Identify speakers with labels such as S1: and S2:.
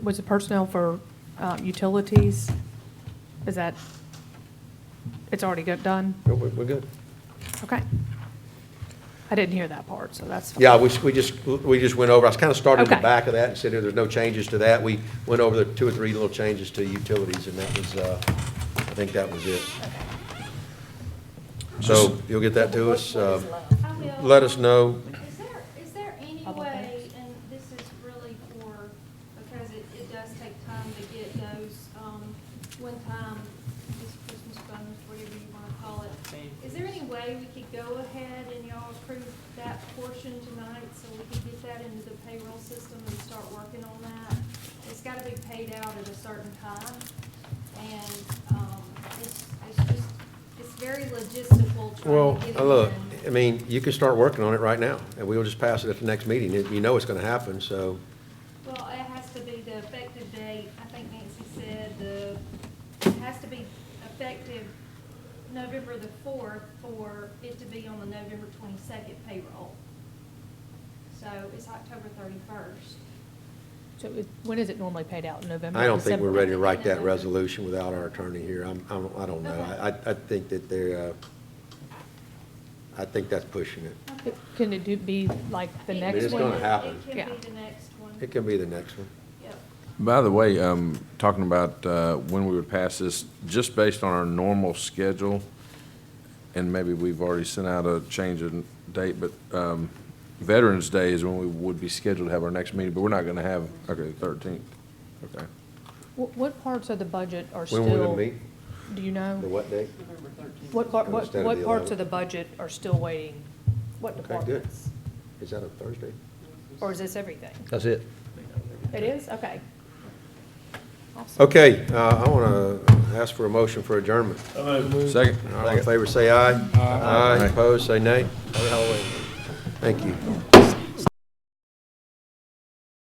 S1: was it personnel for uh, utilities? Is that, it's already got done?
S2: We're, we're good.
S1: Okay. I didn't hear that part, so that's. fine.
S2: Yeah, we, we just, we just went over, I was kind of starting in the
S1: Okay.
S2: back of that and said, there's no changes to that. We went over the two or three little changes to utilities, and that was, uh, I think that was it. So you'll get that to us. uh,
S3: I will.
S2: Let us know.
S3: Is there, is there any
S1: Public
S3: way,
S1: works.
S3: and this is really for, because it, it does take time to get those, um, one-time, this Christmas bonus, whatever you wanna call it. Is there any way we could go ahead and y'all approve that portion tonight so we can get that into the payroll system and start working on that? It's gotta be paid out at a certain time, and, um, it's, it's just, it's very logistical trying
S2: Well,
S3: to get it
S2: uh, look,
S3: in.
S2: I mean, you can start working on it right now, and we'll just pass it at the next meeting. You know it's going to happen, so,
S3: Well, it has to be the effective date, I think Nancy said, the, it has to be effective November the fourth for it to be on the November twenty-second payroll. So it's October thirty-first.
S1: So it- When is it normally paid out? November?
S2: I don't think we're
S1: December?
S2: ready to write that resolution without our attorney here. I'm, I'm, I don't know. I, I- I think that they're, uh, I think that's pushing it.
S1: It- Can it do, be like the
S2: mean,
S1: next
S2: it's
S1: one?
S2: gonna happen.
S3: It
S1: Yeah.
S3: can be the next one,
S2: It can be the next one.
S3: yep.
S4: By the way, um, talking about, uh, when we would pass this, just based on our normal schedule, and maybe we've already sent out a change in date, but, um, Veterans Day is when we would be scheduled to have our next meeting, but we're not gonna have, okay, thirteenth, okay.
S1: Wh- What parts of the budget are still?
S2: When we're going to meet,
S1: Do you know?
S2: the what date?
S1: What, part- what,
S2: Instead of
S1: what
S2: the
S1: parts of
S2: 11th.
S1: the budget are still waiting? What
S2: Okay, good.
S1: departments?
S2: Is that a Thursday?
S1: Or is this everything?
S2: That's it.
S1: It is? Okay. Awesome.
S2: Okay, uh, I want to ask for a motion for adjournment.
S4: Second?
S2: All in favor, say aye. Aye. Opposed, say nay. Thank you.